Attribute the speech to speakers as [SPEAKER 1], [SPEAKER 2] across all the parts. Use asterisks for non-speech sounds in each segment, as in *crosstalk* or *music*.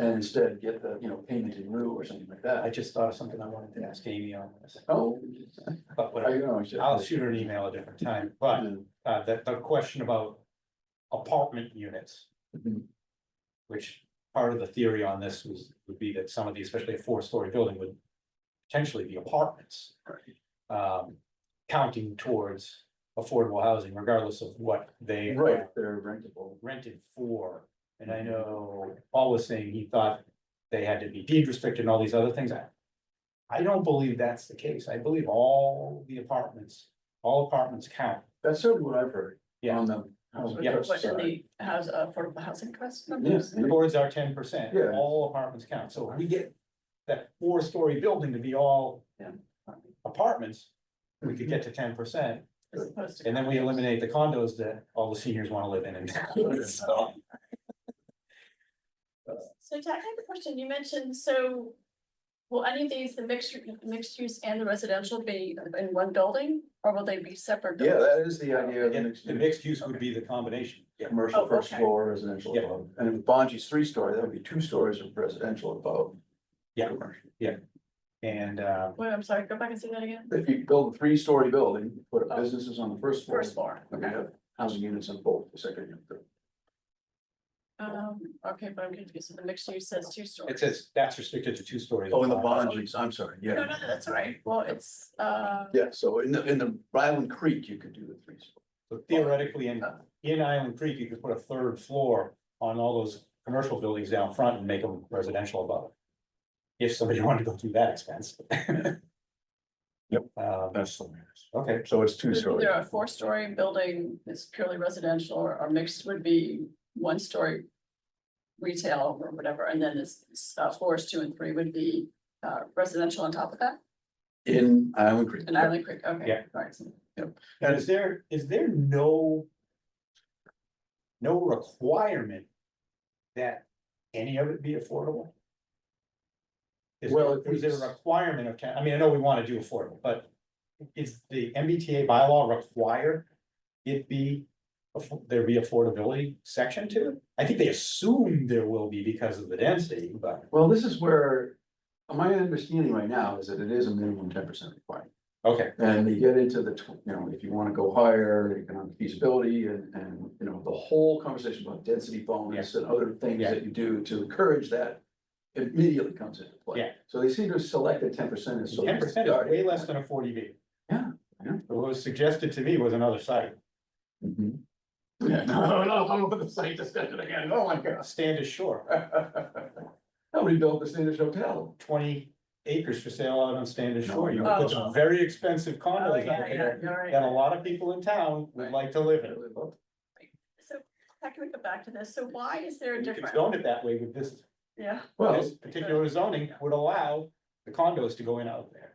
[SPEAKER 1] and instead get the, you know, payment in lieu or something like
[SPEAKER 2] I
[SPEAKER 1] that.
[SPEAKER 2] just thought of something I wanted to ask Amy on this,
[SPEAKER 1] Oh,
[SPEAKER 2] but
[SPEAKER 1] I
[SPEAKER 2] whatever.
[SPEAKER 1] know, I should.
[SPEAKER 2] I'll shoot her an email a different time, but uh, the, the question about apartment units.
[SPEAKER 1] Mhm.
[SPEAKER 2] Which part of the theory on this was, would be that some of these, especially a four-story building would potentially be apartments. Um, counting towards affordable housing regardless of what they. are
[SPEAKER 1] Right, they're rentable.
[SPEAKER 2] rented for. And
[SPEAKER 1] Mm-hmm.
[SPEAKER 2] I know Paul was saying he thought they had to be deed restricted and all these other things. I- I don't believe that's the case. I believe all the apartments, all apartments count.
[SPEAKER 1] That's certainly what I've heard.
[SPEAKER 2] Yeah.
[SPEAKER 1] On the. housing
[SPEAKER 2] Oh, Yeah.
[SPEAKER 1] trust
[SPEAKER 3] What, in
[SPEAKER 1] side.
[SPEAKER 3] the house, uh, affordable housing trust
[SPEAKER 1] Yes,
[SPEAKER 3] numbers?
[SPEAKER 2] The boards are ten percent,
[SPEAKER 1] Mm-hmm. Yeah.
[SPEAKER 2] all apartments count. So if we get that four-story building to be all apartments, we could get to
[SPEAKER 1] Mm-hmm.
[SPEAKER 2] ten percent.
[SPEAKER 3] As opposed to.
[SPEAKER 2] And then we eliminate the condos that all the seniors want to live
[SPEAKER 1] *laughs*
[SPEAKER 2] in and so.
[SPEAKER 4] So Jack, I have a question. You mentioned, so will any of these, the mixed, mixed use and the residential be in one building? Or will they be separate?
[SPEAKER 1] Yeah,
[SPEAKER 4] buildings?
[SPEAKER 1] that is the idea of the
[SPEAKER 2] And
[SPEAKER 1] mixed
[SPEAKER 2] the
[SPEAKER 1] use.
[SPEAKER 2] mixed use would be the combination. Yeah.
[SPEAKER 1] Commercial
[SPEAKER 4] Oh,
[SPEAKER 1] first
[SPEAKER 4] okay.
[SPEAKER 1] floor, residential
[SPEAKER 2] Yeah.
[SPEAKER 1] above, and if Bonji's three story, that would be two stories of residential above.
[SPEAKER 2] Yeah.
[SPEAKER 1] Commercial.
[SPEAKER 2] And uh,
[SPEAKER 4] Wait, I'm sorry, go back and say that again.
[SPEAKER 1] If you build a three story building, put up businesses on the Oh. first floor,
[SPEAKER 4] First floor,
[SPEAKER 1] and we
[SPEAKER 4] okay.
[SPEAKER 1] have housing units on both, the second and third.
[SPEAKER 4] Um, okay, but I'm confused. So The mixed use says two stories.
[SPEAKER 2] It says that's restricted to two stories.
[SPEAKER 1] Oh, in the Bonji's, I'm sorry,
[SPEAKER 4] No, no,
[SPEAKER 1] yeah,
[SPEAKER 4] no, that's all right. Well, it's, uh,
[SPEAKER 1] yeah, so in the, in the Ryland Creek, you could do the three. story.
[SPEAKER 2] So Theoretically, in, in Island Creek, you could put a third floor on all those commercial buildings down front and make them residential above. If somebody *laughs* wanted to go through that expense.
[SPEAKER 1] Yep.
[SPEAKER 2] Um,
[SPEAKER 1] That's the way it is.
[SPEAKER 2] okay,
[SPEAKER 1] So it's two
[SPEAKER 4] there's
[SPEAKER 1] story.
[SPEAKER 4] either a four-story building that's purely residential or, or mixed would be one-story retail or whatever, and then this, uh, floors two and three would be, uh, residential on top of that?
[SPEAKER 1] In Island Creek.
[SPEAKER 4] In Island Creek, okay.
[SPEAKER 2] Yeah.
[SPEAKER 4] all right.
[SPEAKER 2] and is there, is there no? No requirement that any of it be affordable? Is
[SPEAKER 1] Well,
[SPEAKER 2] there,
[SPEAKER 1] if
[SPEAKER 2] is there
[SPEAKER 1] it's-
[SPEAKER 2] a requirement of town, I mean, I know we wanna do affordable, but is the MBTA bylaw require? It be, affo- there be affordability section to it? I think they assume there will be because of the density, but,
[SPEAKER 1] Well, this is where, my understanding right now is that it is a minimum ten percent requirement.
[SPEAKER 2] okay,
[SPEAKER 1] And you get into the, tw- you know, if you wanna go higher, economic feasibility and, and, you know, the whole conversation about density bonus and other things
[SPEAKER 2] Yeah.
[SPEAKER 1] that you do to encourage that. Immediately comes into play.
[SPEAKER 2] Yeah.
[SPEAKER 1] So they seem to select the ten percent as. sort of
[SPEAKER 2] ten percent is
[SPEAKER 1] starting
[SPEAKER 2] way less than a forty B.
[SPEAKER 1] Yeah, yeah.
[SPEAKER 2] What was suggested to me was another site,
[SPEAKER 1] point. Mhm. Yeah, *laughs* no, no, I'm over the site discussion again, oh my gosh.
[SPEAKER 2] Standish
[SPEAKER 1] *laughs*
[SPEAKER 2] Shore,
[SPEAKER 1] How many built the Standish Hotel?
[SPEAKER 2] twenty acres for sale out on Standish
[SPEAKER 1] No,
[SPEAKER 2] Shore, you
[SPEAKER 4] no.
[SPEAKER 2] put some very expensive
[SPEAKER 4] Oh,
[SPEAKER 2] condos
[SPEAKER 4] yeah,
[SPEAKER 2] out
[SPEAKER 4] yeah,
[SPEAKER 2] there.
[SPEAKER 4] you're right.
[SPEAKER 2] That a lot of people in town would
[SPEAKER 1] Right.
[SPEAKER 2] like to live in.
[SPEAKER 4] So, how can we go back to this? So why is there a
[SPEAKER 2] You could
[SPEAKER 4] difference?
[SPEAKER 2] zone it that way with this,
[SPEAKER 4] Yeah,
[SPEAKER 1] Well,
[SPEAKER 2] this particular zoning would allow the condos to go in out there.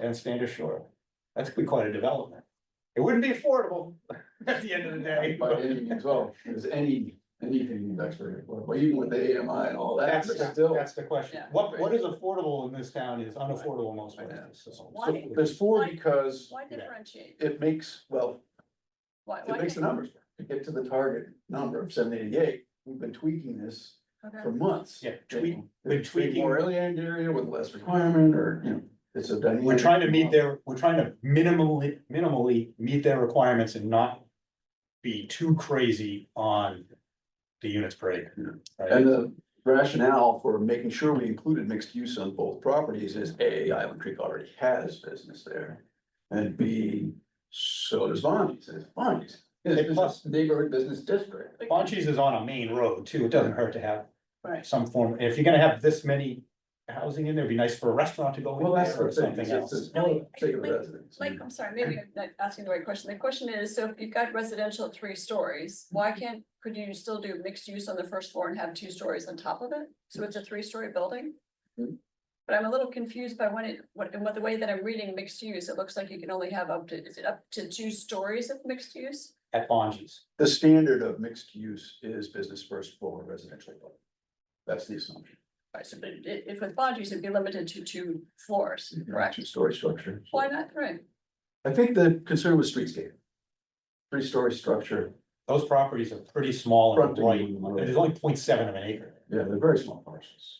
[SPEAKER 2] And stand ashore. That's be quite a development. It wouldn't be affordable *laughs* at the end of the day,
[SPEAKER 1] by
[SPEAKER 2] but
[SPEAKER 1] any means, well, there's any, anything that's very, well, even with the AMI and all that,
[SPEAKER 2] that's,
[SPEAKER 1] there's
[SPEAKER 2] that's
[SPEAKER 1] still.
[SPEAKER 2] the question.
[SPEAKER 4] Yeah.
[SPEAKER 2] What, what is affordable in this town is unaffordable most places. so.
[SPEAKER 4] Why?
[SPEAKER 1] There's four
[SPEAKER 4] Why-
[SPEAKER 1] because
[SPEAKER 4] why
[SPEAKER 2] Yeah.
[SPEAKER 4] differentiate?
[SPEAKER 1] it makes, well,
[SPEAKER 4] Why, why
[SPEAKER 1] it makes the
[SPEAKER 4] can't-
[SPEAKER 1] numbers, work. to get to the target number of seven eighty-eight, we've been tweaking this for
[SPEAKER 4] okay.
[SPEAKER 1] months.
[SPEAKER 2] Yeah, tweak,
[SPEAKER 1] We're
[SPEAKER 2] we're
[SPEAKER 1] tweaking more
[SPEAKER 2] tweaking,
[SPEAKER 1] alien area with less requirement, or, you know, it's a dynamic.
[SPEAKER 2] we're trying to meet their, we're trying to minimally, minimally meet their requirements and not be too crazy on the units per acre. right?
[SPEAKER 1] And the rationale for making sure we included mixed use on both properties is A, Island Creek already has business there. And B, so does Bonnie's, it's Bonnie's,
[SPEAKER 2] And plus-
[SPEAKER 1] it's a neighborhood business district.
[SPEAKER 4] But-
[SPEAKER 2] Bunchies is on a main road too, it doesn't hurt to have
[SPEAKER 4] Right.
[SPEAKER 2] some form, if you're gonna have this many housing in there, it'd be nice for a restaurant to go in
[SPEAKER 1] Well, that's
[SPEAKER 2] there
[SPEAKER 1] the
[SPEAKER 2] or
[SPEAKER 1] thing,
[SPEAKER 2] something
[SPEAKER 1] it's
[SPEAKER 2] else.
[SPEAKER 1] it's a small
[SPEAKER 4] No, I-
[SPEAKER 1] particular
[SPEAKER 4] like-
[SPEAKER 1] residence.
[SPEAKER 4] Like, I'm sorry, maybe I'm not asking the right question. The question is, so if you've got residential at three stories, why can't, could you still do mixed use on the first floor and have two stories on top of it? So it's a three-story building? Hmm.
[SPEAKER 1] Mhm.
[SPEAKER 4] But I'm a little confused by when it, what, and what the way that I'm reading mixed use, it looks like you can only have up to, is it up to two stories of mixed use?
[SPEAKER 2] At Bunchies,
[SPEAKER 1] The standard of mixed use is business first floor residential. above. That's the assumption.
[SPEAKER 4] Right, so but i- if with boundaries, it'd be limited to two floors, correct?
[SPEAKER 1] Two-story structure.
[SPEAKER 4] Why not three?
[SPEAKER 1] I think the concern was streetscape. Three-story structure,
[SPEAKER 2] those properties are pretty small and
[SPEAKER 1] Fronting
[SPEAKER 2] right,
[SPEAKER 1] on the road.
[SPEAKER 2] there's only 0.7 of an acre.
[SPEAKER 1] Yeah, they're very small parcels.